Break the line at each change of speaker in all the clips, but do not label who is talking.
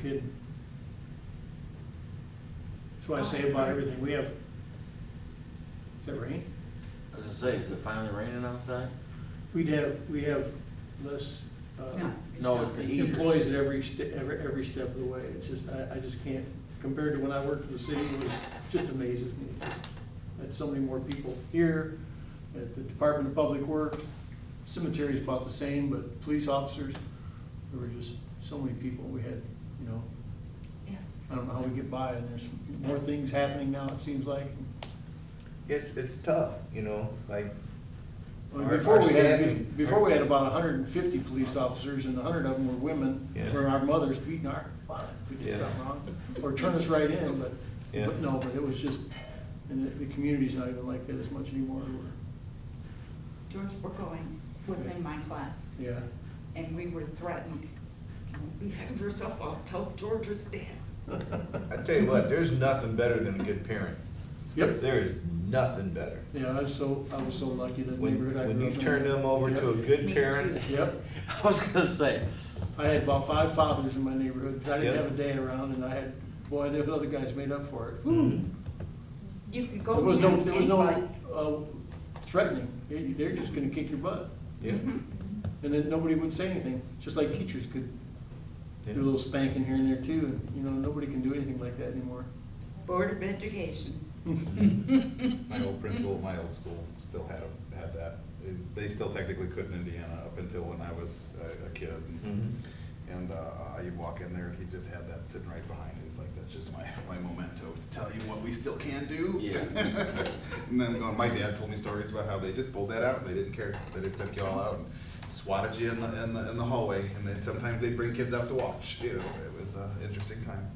kidding. That's what I say about everything we have. Is that rain?
I was gonna say, is it finally raining outside?
We'd have, we have less, uh,
No.
No,
not.
it's the heat.
employees at every, ste- every, every step of the way. It's just, I, I just can't, compared to when I worked for the city, it was, just amazes me. That's so many more people here, at the Department of Public Works, cemetery's about the same, but police officers, there were just so many people we had, you know.
Yeah.
I don't know how we get by, and there's more things happening now, it seems like.
It's, it's tough, you know, like,
I mean,
Our-
Before
our
we had,
staffing-
before we had about hundred and fifty police officers, and hundred of them were women,
Yeah.
where our mothers beating our, we did
Yeah.
something wrong, or turn us right in, but,
Yeah.
but no, but it was just, and the, the community's not even like that as much anymore, we're,
George Burgoyne was in my class,
yeah.
and we were threatened, "Don't behave yourself, I'll tell George's dad.
I tell you what, there's nothing better than a good parent.
Yep,
There is nothing better.
yeah, I was so, I was so lucky that
When,
neighborhood I
when
grew
you
up in.
turn them over to a
Yep,
good
Me
parent,
too.
Yep,
I was gonna say,
I had about five fathers in my neighborhood, 'cause I didn't
Yep.
have a day around, and I had, boy, those other guys made up for it.
You could go
Hmm. There was no,
down
there was no
any place.
uh, threatening, They- they're just gonna kick your butt,
yeah,
and then nobody would say anything, just like teachers could do a
yeah.
little spanking here and there too, and, you know, nobody can do anything like that anymore.
Board of Education.
My old principal, at my old school still had, had that. They- They still technically could in Indiana up until when I was a- a kid.
Mhm.
And uh, you'd walk in there and he just had that sitting right behind you. It's like, that's just my, my memento to tell you what we still can do.
Yeah.
And then going, my dad told me stories about how they just pulled that out. and They didn't care. They just took you all out and swatted you in the, in the, in the hallway. And then sometimes they'd bring kids out to watch, you know, it was an interesting time.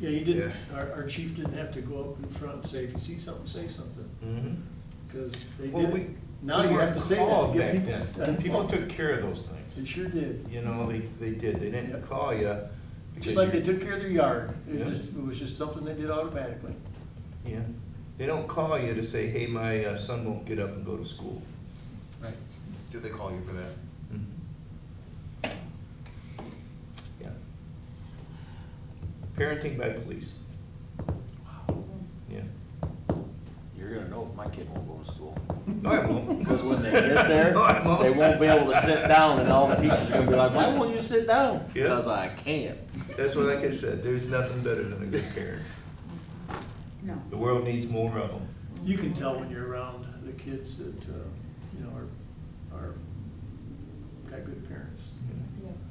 Yeah, you didn't, our, our chief didn't have to go up in front and say, if you see something, say something,
Mhm.
because they
Well,
did
we-
it. Now
we
you have
weren't
to say that to
called
get
back
people,
then.
and
People
people,
took care of those
they
things,
sure did.
you know, they, they did, they didn't
Yeah.
call you.
Just like they took care of their yard, it
Yeah.
was just, it was just something they did automatically.
Yeah, they don't call you to say, hey, my uh, son won't get up and go to school.
Right. Did they call you for that?
Yeah. Parenting by police. Yeah.
you're gonna know if my kid won't go to school.
No, I won't.
Because when they get there,
No, I won't.
they won't be able to sit down and all the teachers are gonna be like, why won't you sit down?
Yeah.
Because I can't.
That's what, like I said, there's nothing better than a good parent.
No.
The world needs more of them.
You can tell when you're around the kids that, uh, you know, are, are, got good parents.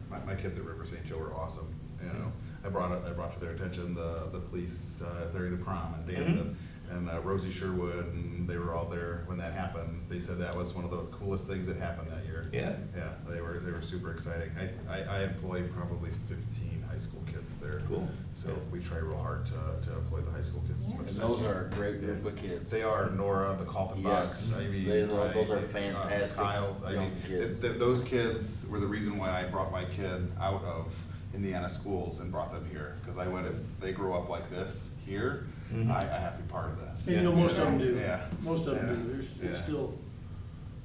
My, my kids at River St. Joe were awesome, you know. I brought up, I brought to their attention the, the police uh, during the prom and dancing, and uh, Rosie Sherwood, and they were all there when that happened. They said that was one of the coolest things that happened that year.
Yeah.
Yeah, they were, they were super exciting. I, I, I employ probably fifteen high school kids there.
Cool.
So we try real hard to, to employ the high school kids. as much
And
as
those
we can.
are a great group of kids.
They are Nora, the Colton Box,
Yes.
I mean.
Those are- those are
I- uh,
fantastic
Kyle, I
young
mean,
kids.
th- th- those kids were the reason why I brought my kid out of Indiana schools and brought them here. Cause I went, if they grow up like this here,
Mm-hmm.
Mhm.
I, I have to be part of this.
And you know, most of them do.
Yeah.
Most of them
Yeah.
do. There's, it's
Yeah.
still,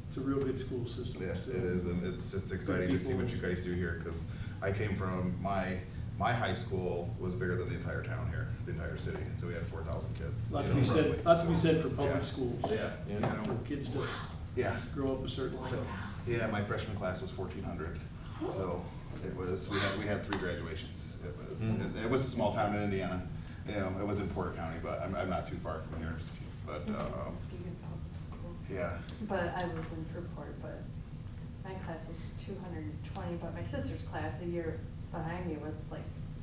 it's a real good school system.
Yeah,
still.
it is, and it's just exciting to see what you guys do here, because I came from, my, my high school was bigger than the entire town here, the entire city, so we had four thousand kids.
Lot to
you know,
be said,
roughly.
lot to be said for
Yeah.
public schools.
Yeah, you
Yeah.
For
know,
kids to
yeah.
grow up a certain way.
So, yeah, my freshman class was fourteen hundred, so it was, we had, we had three graduations. It was,
Mhm.
it- it was a small town in Indiana, you know, it was in Porter County, but I'm, I'm not too far from here, but, um, yeah.
But I was in Fruitport, but my class was two hundred and twenty, but my sister's class a year behind me was like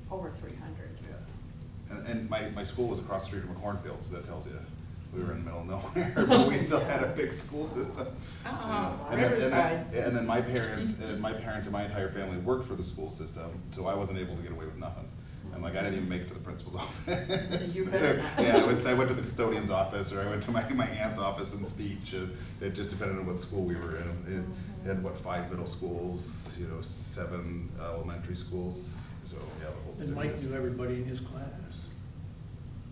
over three hundred.
Yeah, And, and my, my school was across the street from a cornfield, so that tells you, we were in the middle of nowhere, but we still had a big school system.
Uh-uh,
And then- and then-
Riverside.
And then my parents, and my parents and my entire family worked for the school system, so I wasn't able to get away with nothing. And like, I didn't even make it to the principal's office.
You better not.
Yeah, I went, I went to the custodian's office, or I went to my, my aunt's office and speech, and it just depended on what school we were in. And-
Mm-hmm.
And what, five middle schools, you know, seven elementary schools, so, yeah, the whole.
And Mike knew everybody in his class.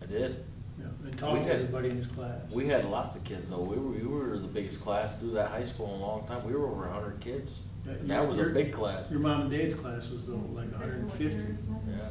I did.
Yeah, And talked
We
to
had-
everybody in his class.
We had lots of kids though. We were, we were the biggest class through that high school in a long time. We were over a hundred kids.
Yeah,
And
your-
That was a
your-
big class.
Your mom and dad's class was though like hundred and fifty.
Yeah.